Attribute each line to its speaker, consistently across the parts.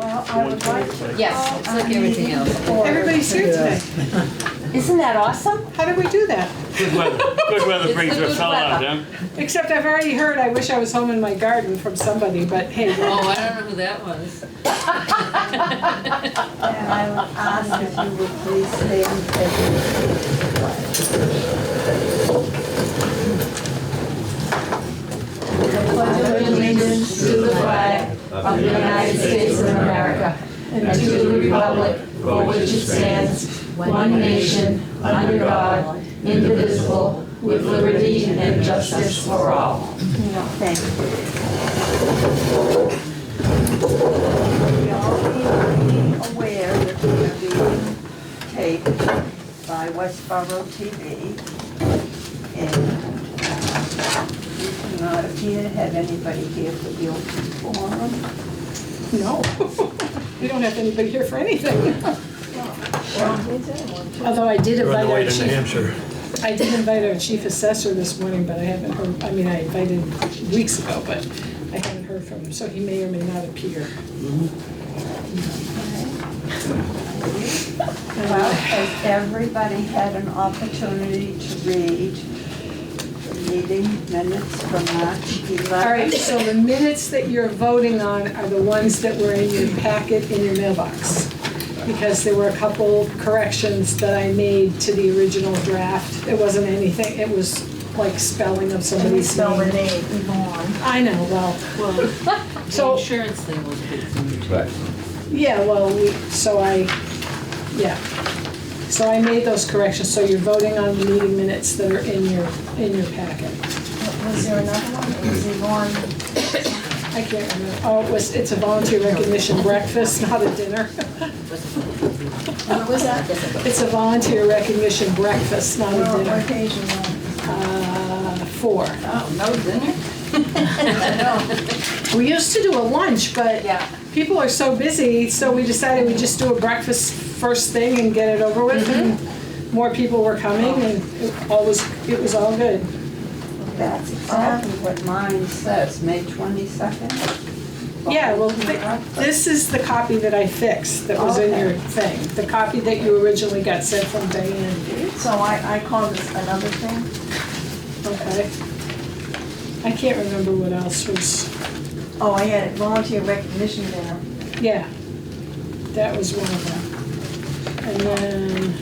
Speaker 1: I would like to.
Speaker 2: Yes, it's like everything else.
Speaker 3: Everybody's here today.
Speaker 1: Isn't that awesome?
Speaker 3: How did we do that?
Speaker 4: Good weather, good weather brings
Speaker 2: the
Speaker 4: a
Speaker 2: good
Speaker 4: fellow out, huh?
Speaker 2: weather.
Speaker 3: Except I've already heard, I wish I was home in my garden from somebody, but hey,
Speaker 2: Oh, I don't know who that was.
Speaker 1: And I would ask if you would please stand and take the allegiance to the flag
Speaker 5: of the United States of America and to the republic for which it stands, one nation, under God, indivisible, with liberty and justice for all.
Speaker 1: Thank you. We all need to be aware that we are being taped by Westboro TV. And uh, we do not appear to have anybody here for guilty forum.
Speaker 3: no. We don't have anybody here for anything. Although I did invite our chief,
Speaker 6: Hampshire.
Speaker 3: I did invite our chief assessor this morning, but I haven't heard, I mean, I invited weeks ago, but I haven't heard from him, so he may or may not appear.
Speaker 1: Well, has everybody had an opportunity to read the meeting minutes from March 11th?
Speaker 3: All right, so the minutes that you're voting on are the ones that were in your packet in your mailbox. Because there were a couple corrections that I made to the original draft. It wasn't anything, it was like spelling
Speaker 1: Can
Speaker 3: of
Speaker 1: you
Speaker 3: somebody's
Speaker 1: spell the
Speaker 3: name.
Speaker 1: name, Yvonne?
Speaker 3: I know, well,
Speaker 2: Well, the
Speaker 3: So-
Speaker 2: insurance thing was a big thing.
Speaker 5: Right.
Speaker 3: yeah, well, we, so I, yeah. So I made those corrections, so you're voting on the meeting minutes that are in your, in your packet.
Speaker 1: Was there another one? It was Yvonne.
Speaker 3: I can't remember, oh, it was, it's a volunteer recognition breakfast, not a dinner.
Speaker 1: What was that? Oh,
Speaker 3: It's a volunteer recognition breakfast, not a
Speaker 1: Well,
Speaker 3: dinner.
Speaker 1: occasional.
Speaker 3: Uh, Four.
Speaker 2: Oh, no dinner?
Speaker 3: We used to do a lunch, but
Speaker 1: Yeah.
Speaker 3: people are so busy, so we decided we'd just do a breakfast first thing and get it over with.
Speaker 1: Mm-hmm.
Speaker 3: And More people were coming and it all was, it was all good.
Speaker 1: That's exactly what mine says, May 22nd.
Speaker 3: Yeah, well, thi- this is the copy that I fixed that was in your
Speaker 1: Okay.
Speaker 3: thing. The copy that you originally got sent from Diane,
Speaker 1: So I, I call this another thing?
Speaker 3: okay? I can't remember what else was.
Speaker 1: Oh, I had it, volunteer recognition dinner.
Speaker 3: Yeah, that was one of them. And then,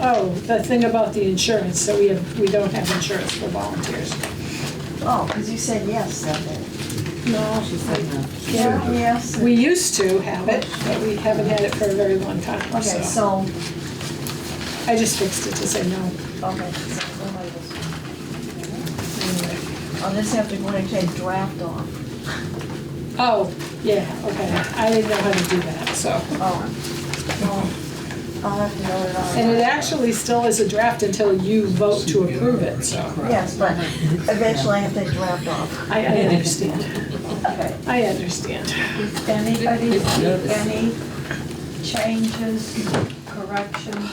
Speaker 3: oh, the thing about the insurance, so we have, we don't have insurance for volunteers.
Speaker 1: Oh, because you said yes that day.
Speaker 3: No,
Speaker 2: She said no.
Speaker 1: Yeah, yes.
Speaker 3: we used to have it, but we haven't had it for a very long time,
Speaker 1: Okay,
Speaker 3: so.
Speaker 1: so,
Speaker 3: I just fixed it to say no.
Speaker 1: okay. so we'll write this one.
Speaker 3: anyway.
Speaker 1: On this, you have to go and take draft off.
Speaker 3: Oh, yeah, okay, I didn't know how to do that, so.
Speaker 1: Oh. Well, I'll have to know it on.
Speaker 3: And it actually still is a draft until you vote to approve it, so.
Speaker 1: Yes, but eventually I have to take draft off.
Speaker 3: I, I understand,
Speaker 1: Okay.
Speaker 3: I understand.
Speaker 1: Does anybody see any changes, corrections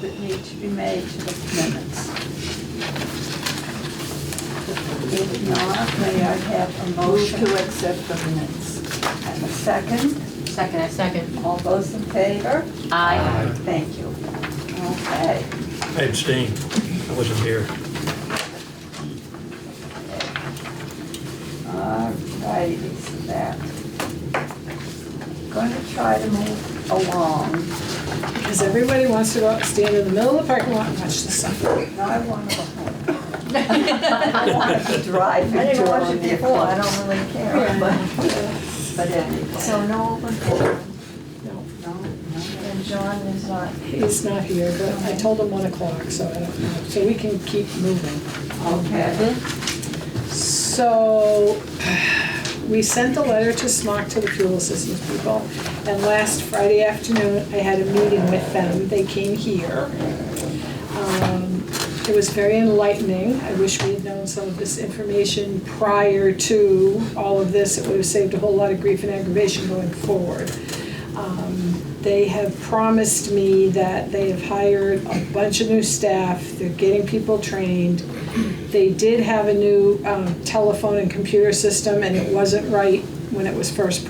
Speaker 1: that need to be made to the minutes? If not, may I have a motion? to accept the minutes. And a second,
Speaker 2: Second, I second.
Speaker 1: all those in favor?
Speaker 2: Aye.
Speaker 1: Thank you. Okay.
Speaker 6: I abstained. I wasn't here.
Speaker 1: Alrighty, so that. Going to try to move along.
Speaker 3: Because everybody wants to go out and stand in the middle of the parking lot and watch the sun.
Speaker 1: Now I want to go home. I want to be driving. I didn't watch it before, I don't really care, but, but anyway. So no open forum,
Speaker 3: No,
Speaker 1: no, no, and John is not,
Speaker 3: he's not here, but I told him one o'clock, so I don't know. So we can keep moving.
Speaker 1: okay.
Speaker 3: So we sent a letter to SMOC to the fuel assistance people. And last Friday afternoon, I had a meeting with them. They came here. Um, It was very enlightening. I wish we had known some of this information prior to all of this. It would have saved a whole lot of grief and aggravation going forward. Um, They have promised me that they have hired a bunch of new staff, they're getting people trained. They did have a new um, telephone and computer system, and it wasn't right when it was first